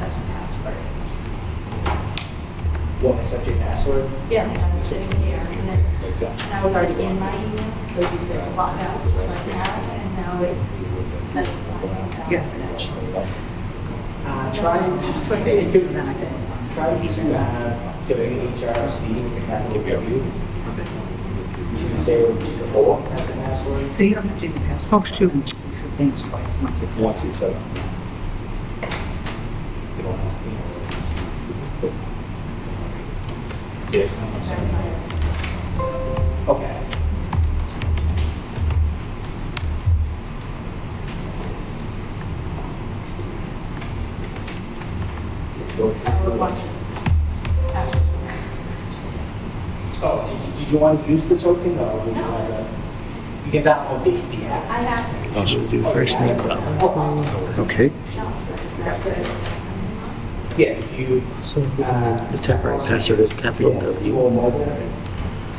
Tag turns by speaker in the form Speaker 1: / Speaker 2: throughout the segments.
Speaker 1: password.
Speaker 2: You want me to set your password?
Speaker 1: Yeah, I was sitting here and then, and I was already in my email, so you said log out, it was like that, and now it says log out.
Speaker 3: Yeah.
Speaker 1: credentials.
Speaker 3: Uh, Try,
Speaker 1: That's what
Speaker 3: it
Speaker 1: it
Speaker 3: gives
Speaker 1: is.
Speaker 3: them a
Speaker 2: Try using uh, the HRC, if that will give you a read. Tuesday would be the fourth as the password.
Speaker 3: So you don't have to do the password.
Speaker 4: Oh, shoot.
Speaker 3: Things twice, once it's.
Speaker 5: Once it's set up.
Speaker 2: Yeah. Okay.
Speaker 1: I would want password.
Speaker 2: Oh, did you, did you want to use the token or would you want to? You can download the, the app. Oh.
Speaker 1: I have,
Speaker 6: Also do first name problem.
Speaker 4: Okay.
Speaker 1: no, it's not good.
Speaker 2: Yeah, you, uh,
Speaker 6: So the temporary password is capital
Speaker 2: yeah, you
Speaker 6: W,
Speaker 2: will mobile.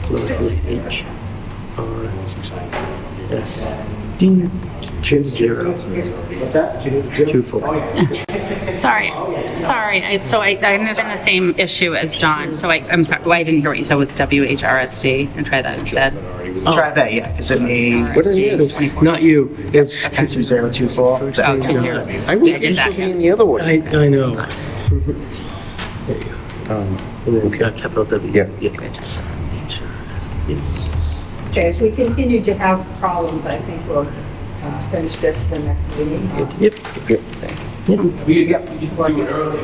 Speaker 6: lowercase h, r, s, two zero.
Speaker 2: Uh, What's that?
Speaker 6: Two four.
Speaker 2: Oh, yeah.
Speaker 7: Sorry,
Speaker 3: Oh,
Speaker 7: sorry. I- So I, I'm in the same issue as John, so I, I'm sorry, well, I didn't hear what you said with WHRSD and try that instead.
Speaker 3: Try that, yeah, because it may.
Speaker 4: What are you?
Speaker 6: Not you, it's,
Speaker 3: Two zero two four.
Speaker 7: Oh, two zero.
Speaker 4: I would
Speaker 7: Yeah, I did
Speaker 4: used to
Speaker 7: that,
Speaker 4: be
Speaker 7: yeah.
Speaker 4: in the other
Speaker 6: I,
Speaker 4: way.
Speaker 6: I know.
Speaker 4: Um,
Speaker 6: And then uh, capital W.
Speaker 4: Yeah.
Speaker 3: Okay, as we continue to have problems, I think we'll uh, finish this the next meeting.
Speaker 6: Yep,
Speaker 4: yep, thank you.
Speaker 2: We, yeah, you can plug it early.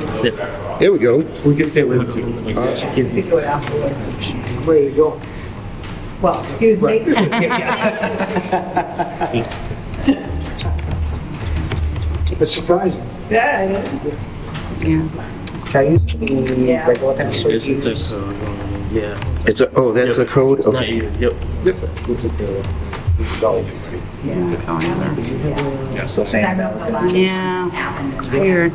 Speaker 4: There we go.
Speaker 6: we can stay with you.
Speaker 4: Awesome.
Speaker 3: We do it afterwards.
Speaker 2: Where you go?
Speaker 3: Well, excuse me.
Speaker 2: It's surprising.
Speaker 3: Yeah,
Speaker 7: Yeah.
Speaker 2: Try use the
Speaker 3: Yeah.
Speaker 2: regular password.
Speaker 6: It's, it's a, code, yeah.
Speaker 4: It's a, oh, that's a
Speaker 6: Yep.
Speaker 4: code?
Speaker 6: It's Not
Speaker 4: Okay.
Speaker 6: you, yep. We'll take care of it.
Speaker 2: So
Speaker 3: I
Speaker 2: same.
Speaker 3: remember the last
Speaker 7: Yeah, weird.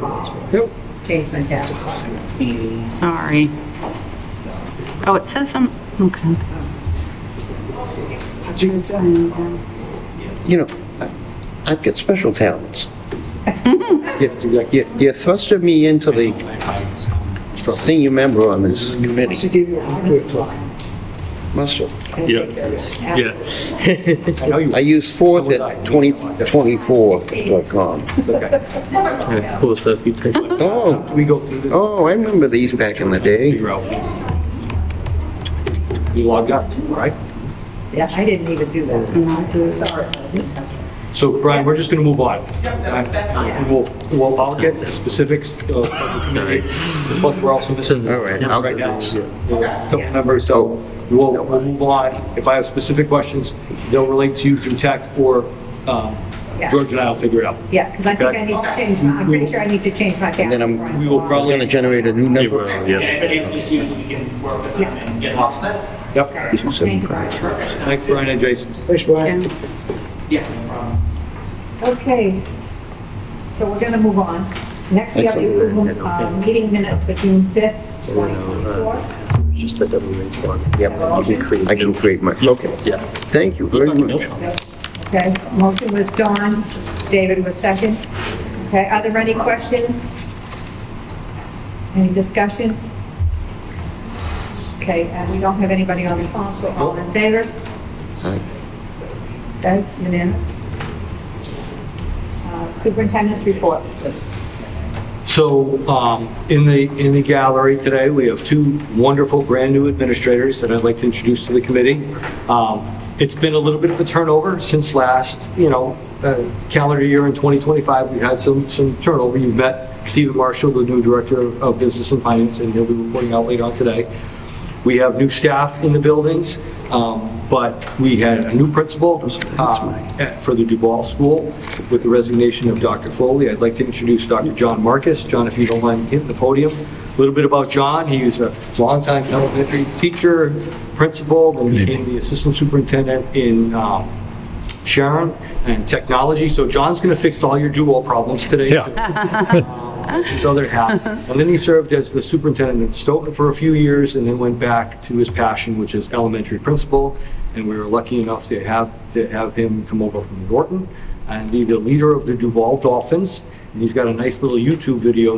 Speaker 3: change my password.
Speaker 7: Sorry. Oh, it says some, okay.
Speaker 4: You know, I- I've got special talents. You- You you thrusted me into the senior member on this committee.
Speaker 2: give you a hardware talk.
Speaker 4: Must have.
Speaker 6: Yeah, yeah.
Speaker 2: I know you.
Speaker 4: I use fourth at 2024.com.
Speaker 6: Yeah, Cool, so if you take like
Speaker 4: Oh,
Speaker 2: We go through this.
Speaker 4: oh, I remember these back in the day.
Speaker 2: Figure out. You logged out, right?
Speaker 3: Yeah, I didn't even do that. Sorry.
Speaker 5: So Brian, we're just going to move on. And We'll, we'll, I'll get the specifics of of the committee, plus we're also missing
Speaker 4: All right, I'll
Speaker 5: right
Speaker 4: do
Speaker 5: now,
Speaker 4: this.
Speaker 5: a couple members, so we'll, we'll move on. If I have specific questions, they'll relate to you through text or um,
Speaker 3: Yeah.
Speaker 5: George and I will figure it out.
Speaker 3: Yeah, because I think I need to change my, I'm pretty sure I need to change my password.
Speaker 4: then I'm-
Speaker 5: We will
Speaker 4: It's going to generate a new number.
Speaker 2: Anybody has issues, you can work with them and get offset?
Speaker 5: Yep.
Speaker 3: Thank you, Brian.
Speaker 5: Thanks, Brian and Jason.
Speaker 2: Thanks, Brian.
Speaker 7: Yeah.
Speaker 2: Yeah, no problem.
Speaker 3: Okay, so we're going to move on. Next, we have the approval of uh, meeting minutes for June 5th, 2024.
Speaker 6: It's just a double range one.
Speaker 4: Yep,
Speaker 6: You can create.
Speaker 4: I can create my, okay.
Speaker 6: Yeah.
Speaker 4: Thank you very much.
Speaker 3: Okay, motion was Dawn, David was second. Okay, are there any questions? Any discussion? Okay, and we don't have anybody on the phone, so all in favor?
Speaker 4: Aye.
Speaker 3: Okay, unanimous. Uh, Superintendent's report, please.
Speaker 5: So um, in the, in the gallery today, we have two wonderful brand-new administrators that I'd like to introduce to the committee. Um, It's been a little bit of a turnover since last, you know, uh, calendar year in 2025, we've had some, some turnover. You've met Stephen Marshall, the new Director of Business and Finance, and he'll be reporting out later on today. We have new staff in the buildings, um, but we had a new principal um, at- for the Duval School with the resignation of Dr. Foley. I'd like to introduce Dr. John Marcus. John, if you don't mind hitting the podium. A little bit about John, he was a longtime elementary teacher, principal, then became the assistant superintendent in um, Sharon and technology. So John's going to fix all your Duval problems today.
Speaker 6: Yeah.
Speaker 5: That's his other half. And then he served as the superintendent in Stoughton for a few years and then went back to his passion, which is elementary principal. And we were lucky enough to have, to have him come over from Norton and be the leader of the Duval Dolphins. And he's got a nice little YouTube video